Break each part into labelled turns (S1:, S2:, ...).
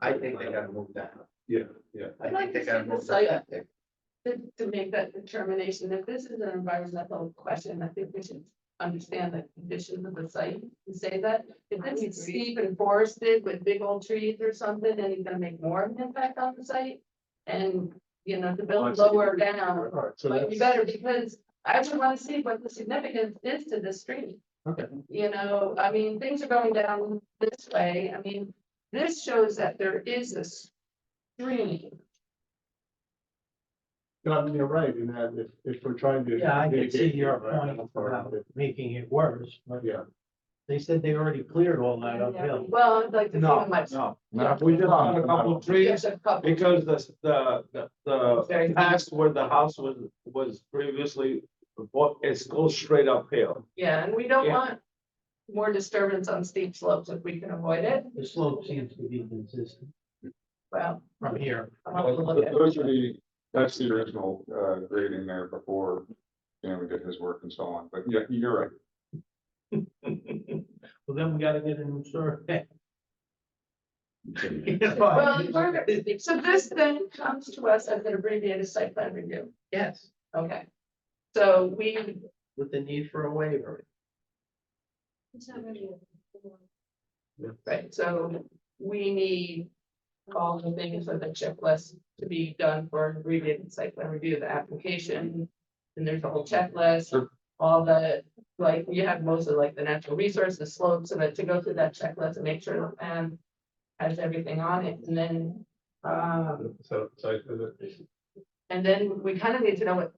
S1: I think they gotta move that.
S2: Yeah, yeah.
S1: I
S3: I'd
S1: think
S3: like to
S1: they
S3: see
S1: gotta
S3: the
S1: move that.
S3: site to, to make that determination. If this is an environmental question, I think we should understand the conditions of the site and say that. If this is steep and forested with big old trees or something, then it's gonna make more of an impact on the site. And, you know, to build lower down,
S2: All right, so
S3: might be
S2: that's,
S3: Um, better because I would wanna see what the significance is to the street.
S2: okay,
S3: You know, I mean, things are going down this way. I mean, this shows that there is a stream.
S2: No, I mean, you're right, in that if, if we're trying to.
S4: Yeah, I can see
S2: mitigate
S4: your
S2: the environmental
S4: point about
S2: part of it,
S4: making it worse, but
S2: Yeah.
S4: they said they already cleared all that uphill.
S3: Well, I'd like to see how much.
S5: No,
S2: No.
S5: we just found Um, a couple of trees
S3: There's a couple.
S5: because the, the, the-
S3: Very
S5: the
S3: nice.
S5: past where the house was, was previously bought, it's goes straight uphill.
S3: Yeah, and we don't
S5: Yeah.
S3: want more disturbance on steep slopes if we can avoid it.
S4: The slope seems to be consistent
S3: Well,
S4: from here.
S3: I want to look at it.
S2: Those are the, that's the original, uh, grading there before, you know, we did his work and so on, but yeah, you're right.
S4: Well, then we gotta get a new survey.
S3: Well, in order- so this then comes to us as an abbreviated site plan review.
S4: Yes,
S3: Okay. So we,
S4: with the need for a waiver.
S3: right, so we need all the things on the checklist to be done for an abbreviated site plan review, the application. And there's a whole checklist,
S2: Sure.
S3: all the, like, you have most of like the natural resources, slopes, and then to go through that checklist and make sure the plan has everything on it, and then, um,
S2: So, so,
S3: and then we kind of need to know what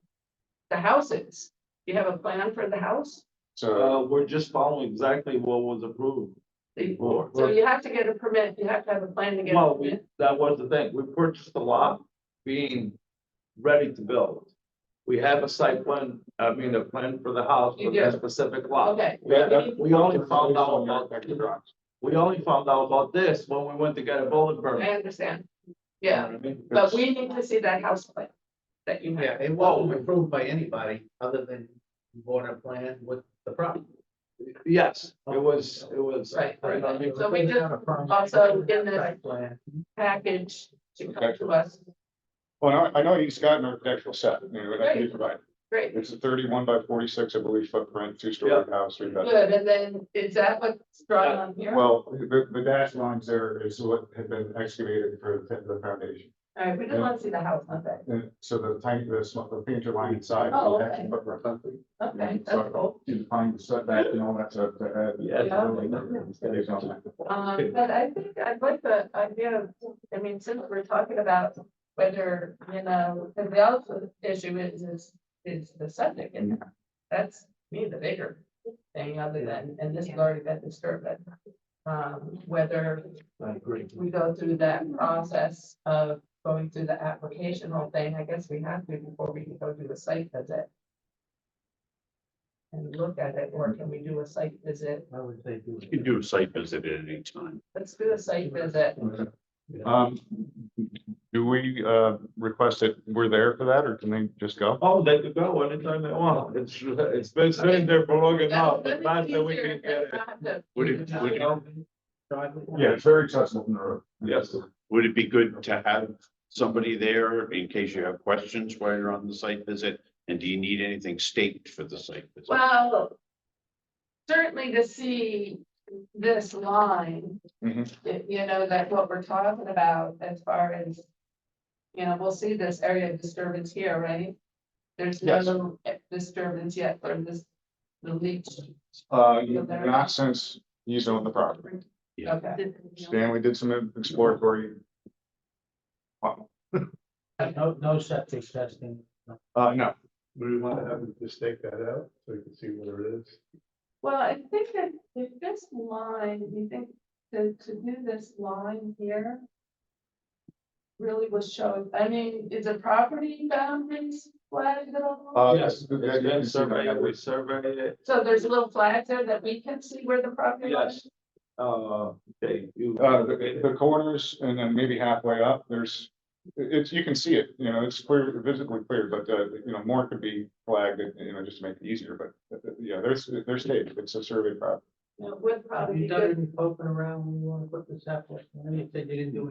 S3: the house is. You have a plan for the house?
S2: so,
S5: Uh, we're just following exactly what was approved before.
S3: So you have to get a permit, you have to have a plan to get. a
S5: Well, we,
S3: permit.
S5: that was the thing. We purchased the lot being ready to build. We have a site plan, I mean, a plan for the house
S3: You
S5: for that
S3: do.
S5: specific lot.
S3: Okay,
S2: that, that.
S5: We only found out about,
S2: that.
S5: we only found out about this when we went to get a bullet
S3: I
S5: permit.
S3: understand. Yeah, but we need to see that house plan that you have.
S1: Yeah, it wasn't approved by anybody other than border plan with the property.
S5: Yes, it was, it was.
S3: Right,
S5: you know what I mean?
S3: So we just also in the package to come to us.
S2: Well, I, I know he's got an architectural set, you know, that he
S3: Great.
S2: provided.
S3: Great,
S2: It's a thirty-one by forty-six, I believe, footprint, two-story house, three bedrooms.
S3: good. And then is that what's drawn on here? All
S2: Well, the, the dash lines there is what had been excavated for the- the foundation.
S3: right, we just want to see the house, not that.
S2: And Uh, so the tiny, the small, the painter line inside.
S3: Oh,
S2: the dash
S3: okay.
S2: footprint. Mm-hmm.
S3: Okay, that's cool.
S2: You find the setback and all that stuff to add.
S5: Yeah.
S3: Um, but I think I'd like the idea of, I mean, since we're talking about whether, you know, because the other issue is, is, is the septic and that's me, the bigger thing other than, and this has already been disturbed, but um, whether
S4: I agree.
S3: we go through that process of going through the application whole thing, I guess we have to before we can go do the site visit. And look at it, or can we do a site visit?
S4: I would say do
S6: You can
S4: it.
S6: do a site visit at any time.
S3: Let's do a site visit.
S2: Um, do we, uh, request that we're there for that, or can they just go?
S5: Oh, they could go anytime they want. It's, it's been sitting there for long enough, but
S3: That-
S5: not that we can
S3: easier if
S5: get
S3: it's
S5: it.
S3: not the-
S6: Would it, would it,
S2: Yeah, it's very accessible from the road.
S5: Yes.
S6: would it be good to have somebody there in case you have questions while you're on the site visit? And do you need anything staked for the site visit?
S3: Well, certainly to see this line, y- you know, that what we're talking about as far as, you know, we'll see this area of disturbance here, right? There's no disturbance yet for this, the leach,
S2: Uh, not since he's owned the property.
S6: Yeah.
S3: okay,
S2: Stanley did some exploratory.
S4: No, no septic testing.
S2: Uh, no,
S7: Do we want to have them just take that out so we can see what it is?
S3: well, I think that if this line, you think, to, to do this line here really was shown, I mean, is the property boundaries flagged at all?
S2: uh,
S5: Yes,
S2: yeah, you
S5: it's
S2: can
S5: been
S2: see that.
S5: surveyed, we surveyed it,
S3: So there's a little flag there that we can see where the property
S5: yes.
S3: is?
S5: Uh, they, you.
S2: Uh, the, the corners and then maybe halfway up, there's, it's, you can see it, you know, it's clear, visibly clear, but, uh, you know, more could be flagged, you know, just to make it easier, but, uh, yeah, there's, there's state, it's a survey property.
S3: It would probably
S4: Have
S3: be
S4: you
S3: good.
S4: done any poking around when you wanna put the septic? I know you said you didn't do